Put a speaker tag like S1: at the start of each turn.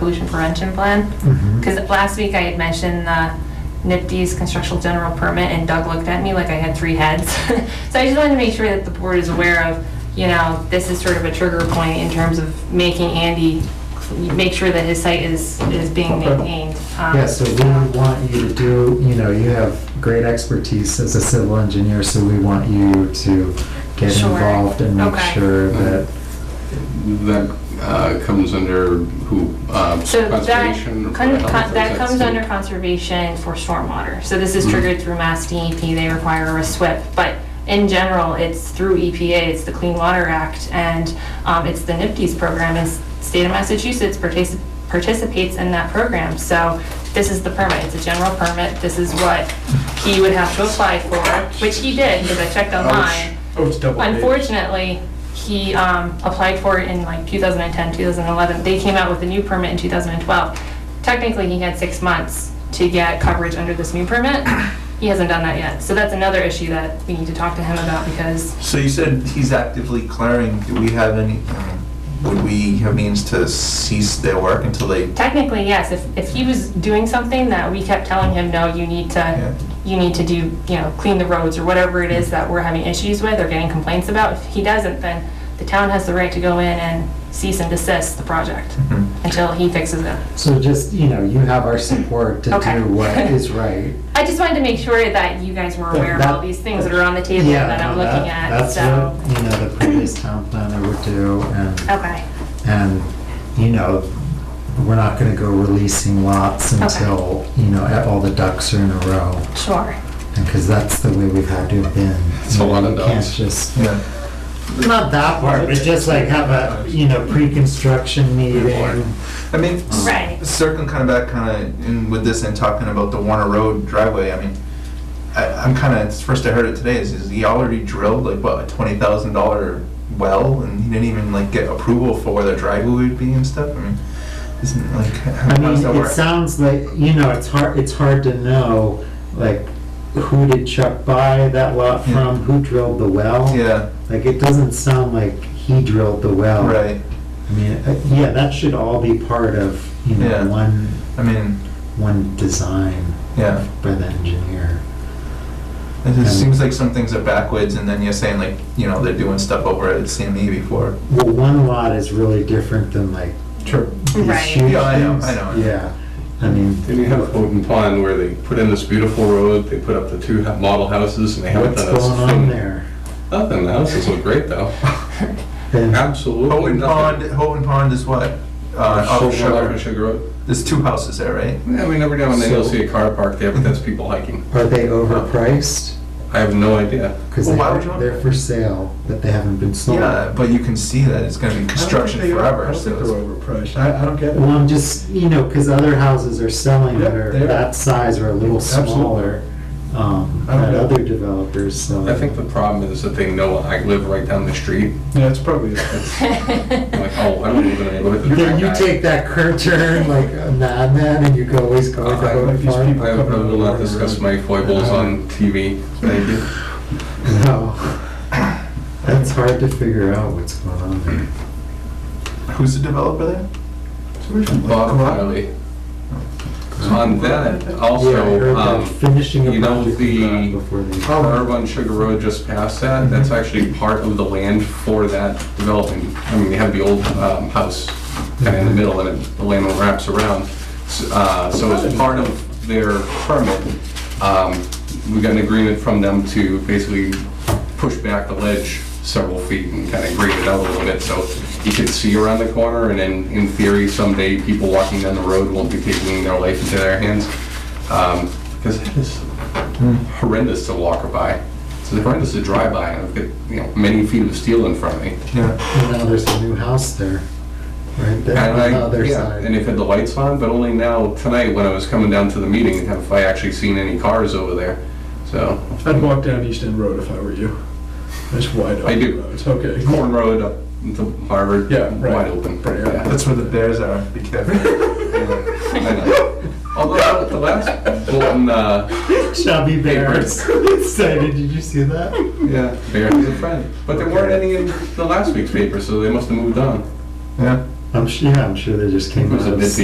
S1: pollution prevention plan.
S2: Mhm.
S1: Because last week I had mentioned uh, NIPD's construction general permit, and Doug looked at me like I had three heads. So I just wanted to make sure that the board is aware of, you know, this is sort of a trigger point in terms of making Andy, make sure that his site is, is being
S2: Okay.
S1: maintained. um,
S2: Yeah, so we would want you to do, you know, you have great expertise as a civil engineer, so we want you to get
S1: Sure.
S2: involved and make
S1: Okay.
S2: sure that,
S3: That uh, comes under who, uh,
S1: So that,
S3: conservation? or
S1: con-
S3: Board of Health, or
S1: con-
S3: is
S1: that comes
S3: state?
S1: under conservation for stormwater. So this is
S3: Mhm.
S1: triggered through Mass DEP, they require a SWIP. But in general, it's through EPA, it's the Clean Water Act, and um, it's the NIPD's program, and s- state of Massachusetts partic- participates in that program. So this is the permit, it's a general permit, this is what he would have to apply for, which he did, because I checked online.
S4: Oh, it's double page.
S1: Unfortunately, he um, applied for it in like 2010, 2011. They came out with a new permit in 2012. Technically, he had six months to get coverage under this new permit. He hasn't done that yet. So that's another issue that we need to talk to him about because
S5: So you said he's actively clearing, do we have any, um, would we have means to cease their work until they,
S1: technically, yes, if, if he was doing something that we kept telling him, no, you need
S5: Yeah.
S1: to, you need to do, you know, clean the roads or whatever it is that we're having issues with or getting complaints about, if he doesn't, then the town has the right to go in and cease and desist the project
S5: Mhm.
S1: until he fixes it.
S2: so just, you know, you have our support to
S1: Okay.
S2: do what is right.
S1: I just wanted to make sure that you guys were aware of all these things that are on the table
S2: Yeah,
S1: that I'm
S2: no,
S1: looking
S2: that-
S1: at, so.
S2: That's what, you know, the previous town planner would do, and,
S1: Okay,
S2: and, you know, we're not gonna go releasing lots
S1: Okay.
S2: until, you know, all the ducks are in a row.
S1: sure.
S2: Because that's the way we've had to have been.
S3: It's a lot of
S2: You can't
S3: dogs.
S2: just-
S5: yeah,
S2: Not that part, but just like have a, you know, pre-construction meeting.
S5: I mean, s-
S1: Right.
S5: circling kind of back, kind of, in with this and talking about the Warner Road driveway, I mean, I, I'm kind of, it's the first I heard it today, is, is he already drilled like, what, a twenty thousand dollar well, and he didn't even like get approval for where the driveway would be and stuff, I mean, isn't like,
S2: I
S5: how
S2: mean,
S5: does that
S2: it
S5: work?
S2: sounds like, you know, it's hard, it's hard to know, like, who did Chuck buy that lot
S5: Yeah.
S2: from? Who drilled the well?
S5: Yeah,
S2: Like, it doesn't sound like he drilled the well.
S5: right,
S2: I mean, uh, yeah, that should all be part of, you
S5: Yeah.
S2: know, one,
S5: I mean,
S2: one design
S5: yeah.
S2: by the engineer.
S5: It
S2: And-
S5: just seems like some things are backwards, and then you're saying like, you know, they're doing stuff over at CME before.
S2: Well, one lot is really different than like
S5: True.
S2: these
S1: Right.
S2: huge
S5: Yeah, I know,
S2: things.
S5: I know.
S2: Yeah, I mean,
S4: Then you have Houghton Pond where they put in this beautiful road, they put up the two ha- model houses and they haven't
S2: what's
S4: done a
S2: going on
S4: thing.
S2: there?
S4: Nothing, the houses look great though.
S2: And-
S4: Absolutely
S5: Houghton Pond,
S4: nothing.
S5: Houghton Pond is what? Uh, off of
S4: Sugar,
S5: Sugar.
S4: Sugar, Sugar Road.
S5: There's two houses there, right?
S4: Yeah, we never down there, you'll
S2: So-
S4: see a car parked there, but that's people hiking.
S2: Are they overpriced?
S4: I have no idea.
S2: Because
S5: Well, why would you
S2: they're,
S5: want-
S2: they're for sale, but they haven't been sold.
S5: Yeah,
S2: Well,
S5: Uh, but you can see that it's gonna be construction forever,
S6: I
S5: so
S6: don't
S5: it's-
S6: think they're overpriced, I, I don't get it.
S2: I'm just, you know, because other houses are selling that
S6: Yeah,
S2: are
S6: they are.
S2: that size or a little
S6: Absolutely.
S2: smaller, um,
S6: I don't
S2: at
S6: know.
S2: other developers, so.
S4: I think the problem is that they know I live right down the street.
S6: Yeah, it's probably, it's-
S4: I'm like, oh, I don't live in a neighborhood that's
S2: Then
S4: that
S2: you
S4: guy.
S2: take that curve turn like a madman and you go always go
S4: Uh,
S2: to
S4: I
S2: Oak
S4: like
S6: these
S2: Farm.
S6: people.
S4: I I will not discuss my foibles on TV, thank you.
S2: No. That's hard to figure out what's going on there.
S5: who's the developer there?
S4: Bob Riley. On that,
S2: Yeah, I heard
S4: also,
S2: that
S4: um,
S2: finishing a
S4: you know,
S2: project
S4: the-
S2: design before they.
S4: curb on Sugar Road just past that, that's actually part of the land for that development. I mean, you have the old um, house kind of in the middle and it- the land wraps around. S- uh, So as part of their permit, um, we got an agreement from them to basically push back the ledge several feet and kind of grade it out a little bit so you could see around the corner and then in theory someday people walking down the road won't be taking their life into their hands. Um, Because that is
S6: Hmm.
S4: horrendous to walk by. It's horrendous to drive by, and I've got, you know, many feet of steel in front of me.
S5: Yeah,
S2: And now there's a new house there, right there on
S4: And
S2: the
S4: I,
S2: other
S4: yeah, and
S2: side.
S4: they've had the lights on, but only now, tonight, when I was coming down to the meeting, have I actually seen any cars over there, so.
S6: I'd walk down East End Road if I were you. It's wide open.
S4: I do.
S6: It's okay.
S4: Corn Road up to Harvard,
S6: Yeah, right.
S4: wide open.
S6: Right, yeah.
S5: that's where the bears are, be careful.
S4: I know. Although, the last bulletin, uh,
S2: Chubby bears. Say, did you see that?
S4: yeah, Bear is a friend, but there weren't any in the last week's paper, so they must have moved on.
S5: Yeah.
S2: I'm sure, yeah, I'm sure they just came
S4: It was
S2: out
S4: a
S2: of
S4: busy